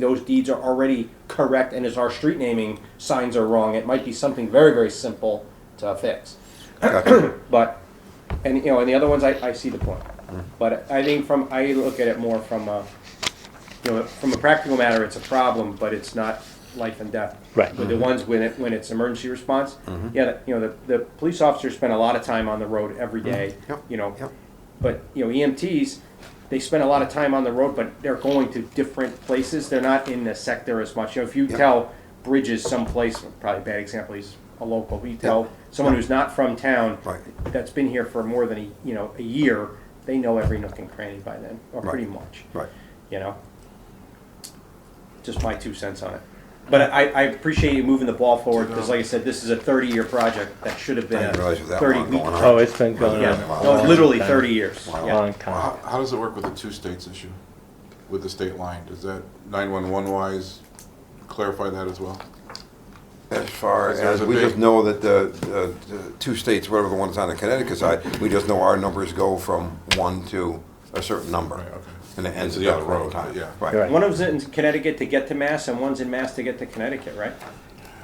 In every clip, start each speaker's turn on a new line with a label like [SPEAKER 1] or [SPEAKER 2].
[SPEAKER 1] those deeds are already correct and as our street naming signs are wrong, it might be something very, very simple to fix. But, and, you know, and the other ones, I, I see the point.
[SPEAKER 2] Mm.
[SPEAKER 1] But I think from, I look at it more from a, you know, from a practical matter, it's a problem, but it's not life and death.
[SPEAKER 3] Right.
[SPEAKER 1] With the
[SPEAKER 2] Mm-hmm.
[SPEAKER 1] ones when it, when it's emergency response, yeah, the- you know, the, the police officers spend a lot of time on the road every day,
[SPEAKER 2] Mm-hmm. Yep,
[SPEAKER 1] you know.
[SPEAKER 2] yep.
[SPEAKER 1] But, you know, EMTs, they spend a lot of time on the road, but they're going to different places, they're not in the sector as much, you know, if you
[SPEAKER 2] Yep.
[SPEAKER 1] tell Bridges someplace, probably a bad example, he's a local, but you tell
[SPEAKER 2] Yep.
[SPEAKER 1] someone who's not from town,
[SPEAKER 2] Right.
[SPEAKER 1] that's been here for more than a, you know, a year, they know every nook and cranny by then, or
[SPEAKER 2] Right.
[SPEAKER 1] pretty much
[SPEAKER 2] Right.
[SPEAKER 1] you know? Just my two cents on it. But I, I appreciate you moving the ball forward, because like I said, this is a thirty-year project that should have
[SPEAKER 2] I
[SPEAKER 1] been
[SPEAKER 2] didn't
[SPEAKER 1] a
[SPEAKER 2] realize it was that long
[SPEAKER 1] thirty-week.
[SPEAKER 2] going on.
[SPEAKER 3] Oh, it's been going
[SPEAKER 1] Yeah,
[SPEAKER 3] on. a
[SPEAKER 1] no,
[SPEAKER 3] long
[SPEAKER 1] literally
[SPEAKER 3] time.
[SPEAKER 1] thirty years,
[SPEAKER 2] Wow.
[SPEAKER 1] yeah.
[SPEAKER 3] Long time.
[SPEAKER 4] How, how does it work with the two states issue, with the state line? Does that 911 wise clarify that as well?
[SPEAKER 2] As far
[SPEAKER 4] Because there's
[SPEAKER 2] as,
[SPEAKER 4] a
[SPEAKER 2] we
[SPEAKER 4] big-
[SPEAKER 2] just know that the, the- the two states, whatever the ones on the Connecticut side, we just know our numbers go from one to a certain number.
[SPEAKER 4] Right, okay.
[SPEAKER 2] And it ends
[SPEAKER 4] To
[SPEAKER 2] at
[SPEAKER 4] the
[SPEAKER 2] that
[SPEAKER 4] other
[SPEAKER 2] road
[SPEAKER 4] road,
[SPEAKER 2] time.
[SPEAKER 4] yeah.
[SPEAKER 2] Right.
[SPEAKER 3] Right.
[SPEAKER 1] One of them's in Connecticut to get to Mass, and one's in Mass to get to Connecticut, right?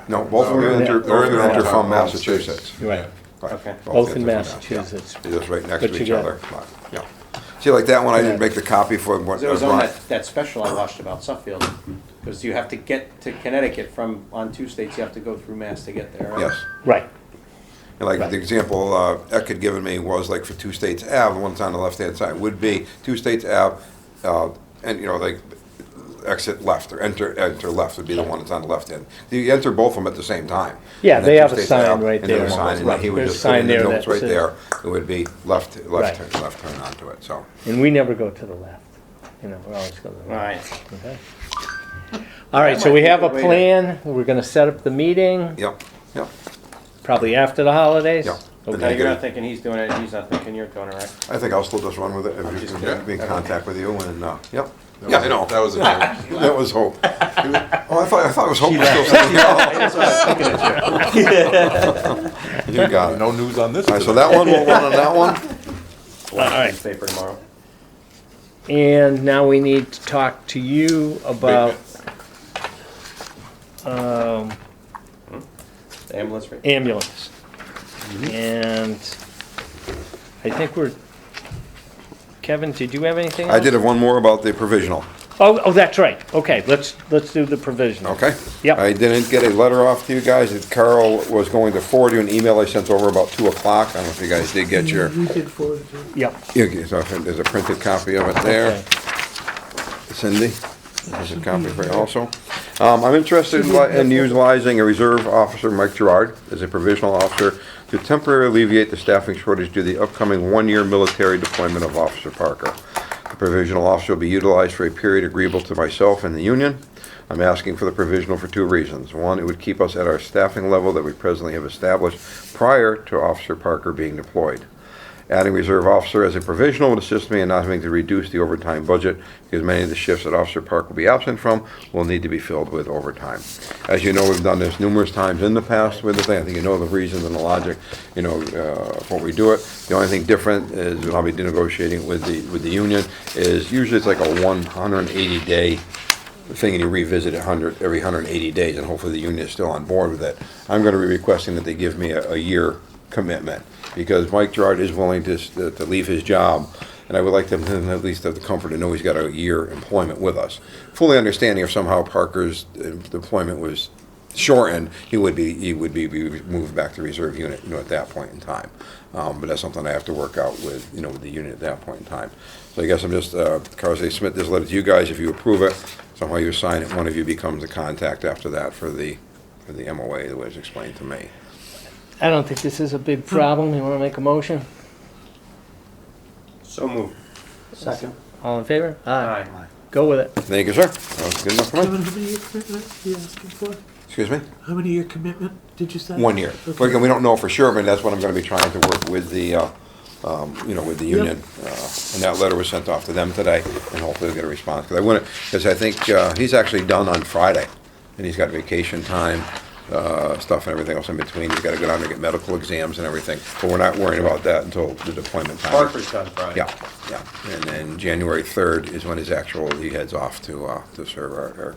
[SPEAKER 2] No, both of
[SPEAKER 4] No,
[SPEAKER 2] them enter,
[SPEAKER 3] they're-
[SPEAKER 2] both of them
[SPEAKER 4] they're
[SPEAKER 2] enter
[SPEAKER 4] in
[SPEAKER 2] from
[SPEAKER 4] the-
[SPEAKER 2] Massachusetts.
[SPEAKER 3] You're right.
[SPEAKER 2] Right.
[SPEAKER 1] Okay.
[SPEAKER 3] Both
[SPEAKER 2] enter
[SPEAKER 3] in
[SPEAKER 2] from Mass- yeah.
[SPEAKER 3] Massachusetts.
[SPEAKER 2] They're just right next
[SPEAKER 3] But
[SPEAKER 2] to
[SPEAKER 3] you
[SPEAKER 2] each
[SPEAKER 3] got-
[SPEAKER 2] other. Right, Yeah. See, like that one, I didn't
[SPEAKER 3] Yeah.
[SPEAKER 2] make the copy for what. uh,
[SPEAKER 1] 'Cause it was on
[SPEAKER 2] Brian-
[SPEAKER 1] that, that special I watched about Suffield, because you have to get to Connecticut from, on two states, you have to go through Mass to get there, right?
[SPEAKER 2] Yes.
[SPEAKER 3] Right.
[SPEAKER 2] And Like
[SPEAKER 3] Right.
[SPEAKER 2] the example uh, Eck had given me was like for two states Ave, the one's on the left-hand side, would be two states Ave, uh, and you know, like exit left or enter, enter left would be the one that's on the left hand. You enter both of them at the same time.
[SPEAKER 3] Yeah,
[SPEAKER 2] And then
[SPEAKER 3] they
[SPEAKER 2] two
[SPEAKER 3] have a
[SPEAKER 2] states
[SPEAKER 3] sign
[SPEAKER 2] Ave,
[SPEAKER 3] right
[SPEAKER 2] and then
[SPEAKER 3] there.
[SPEAKER 2] a sign, and then he would
[SPEAKER 3] There's
[SPEAKER 2] just
[SPEAKER 3] a
[SPEAKER 2] put in
[SPEAKER 3] sign
[SPEAKER 2] the
[SPEAKER 3] there
[SPEAKER 2] notes
[SPEAKER 3] that
[SPEAKER 2] right
[SPEAKER 3] says-
[SPEAKER 2] there. It would be left, left
[SPEAKER 3] Right.
[SPEAKER 2] turn, left turn onto it, so.
[SPEAKER 3] And we never go to the left. You know, we're always going to the
[SPEAKER 1] All
[SPEAKER 3] right.
[SPEAKER 1] right,
[SPEAKER 3] Okay. All right, so
[SPEAKER 1] might
[SPEAKER 3] we
[SPEAKER 1] be
[SPEAKER 3] have
[SPEAKER 1] the
[SPEAKER 3] a
[SPEAKER 1] way to-
[SPEAKER 3] plan. We're going to set up the meeting,
[SPEAKER 2] Yep, yep.
[SPEAKER 3] probably after the holidays.
[SPEAKER 2] Yeah.
[SPEAKER 1] now
[SPEAKER 3] Okay.
[SPEAKER 1] you're not thinking he's doing it, he's not thinking you're doing it, right?
[SPEAKER 2] I think I'll still just run with it if you
[SPEAKER 1] just
[SPEAKER 2] can
[SPEAKER 4] kidding.
[SPEAKER 2] be in contact with you and, uh, yep.
[SPEAKER 4] That
[SPEAKER 2] Yeah,
[SPEAKER 4] was-
[SPEAKER 2] I know.
[SPEAKER 4] That was a
[SPEAKER 2] That was hope. Oh, I thought, I thought it was hope. was still sitting here. You got it. All
[SPEAKER 4] no news on this.
[SPEAKER 2] right, so that one, we'll run on that one.
[SPEAKER 3] All right.
[SPEAKER 1] Newspaper tomorrow.
[SPEAKER 3] And now we need to talk to you about um,
[SPEAKER 1] The ambulance rate.
[SPEAKER 3] ambulance.
[SPEAKER 2] Mm-hmm.
[SPEAKER 3] And I think we're, Kevin, did you have anything?
[SPEAKER 2] I
[SPEAKER 3] else?
[SPEAKER 2] did have one more about the provisional,
[SPEAKER 3] Oh, oh, that's right. Okay, let's, let's do the provisional.
[SPEAKER 2] okay?
[SPEAKER 3] Yep.
[SPEAKER 2] I didn't get a letter off to you guys. that Carl was going to forward you an email I sent over about two o'clock. I don't know if you guys did get your,
[SPEAKER 5] You did forward it to me.
[SPEAKER 3] Yep.
[SPEAKER 2] you- so there's a printed copy of it there.
[SPEAKER 3] Okay.
[SPEAKER 2] Cindy, this is a copy for you also. Um, I'm interested in li- in utilizing a reserve officer, Mike Gerard, as a provisional officer to temporarily alleviate the staffing shortage due to the upcoming one-year military deployment of Officer Parker. The provisional officer will be utilized for a period agreeable to myself and the union. I'm asking for the provisional for two reasons. One, it would keep us at our staffing level that we presently have established prior to Officer Parker being deployed. Adding reserve officer as a provisional would assist me in not having to reduce the overtime budget because many of the shifts that Officer Park will be absent from will need to be filled with overtime. As you know, we've done this numerous times in the past with the thing. I think you know the reasons and the logic, you know, uh, for we do it. The only thing different is when I'll be negotiating with the, with the union is usually it's like a one hundred and eighty day thing and you revisit it 100, every 180 days, and hopefully the union is still on board with it. I'm going to be requesting that they give me a, a year commitment, because Mike Gerard is willing to, s- to leave his job, and I would like them to at least have the comfort to know he's got a year employment with us. Fully understanding if somehow Parker's uh, employment was shortened, he would be, he would be, be moved back to reserve unit, you know, at that point in time. Um, but that's something I have to work out with, you know, with the unit at that point in time. So I guess I'm just, uh, Carl, they submit this letter to you guys, if you approve it, somehow you sign it, one of you becomes the contact after that for the, for the MOA, the way it's explained to me.
[SPEAKER 3] I don't think this is a big problem. You want to make a motion?
[SPEAKER 1] So moved. Second.
[SPEAKER 3] All in favor?
[SPEAKER 1] Aye.
[SPEAKER 3] Go with it.
[SPEAKER 2] Thank you, sir. That was good enough for
[SPEAKER 5] How
[SPEAKER 2] me.
[SPEAKER 5] many year commitment are you asking for?
[SPEAKER 2] Excuse me?
[SPEAKER 5] How many year commitment did you say?
[SPEAKER 2] One year.
[SPEAKER 5] Okay.
[SPEAKER 2] But again, we don't know for sure, but that's what I'm gonna be trying to work with the, uh, um, you know, with the
[SPEAKER 5] Yep.
[SPEAKER 2] union. Uh, And that letter was sent off to them today, and hopefully we'll get a response. Because I wouldn't, because I think, uh, he's actually done on Friday, and he's got vacation time, uh, stuff and everything else in between. He's gotta go down to get medical exams and everything, but we're not worrying about that until the deployment time.
[SPEAKER 1] Parker's done Friday.
[SPEAKER 2] Yeah, yeah. And then January 3rd is when his actual, he heads off to, uh, to serve our, our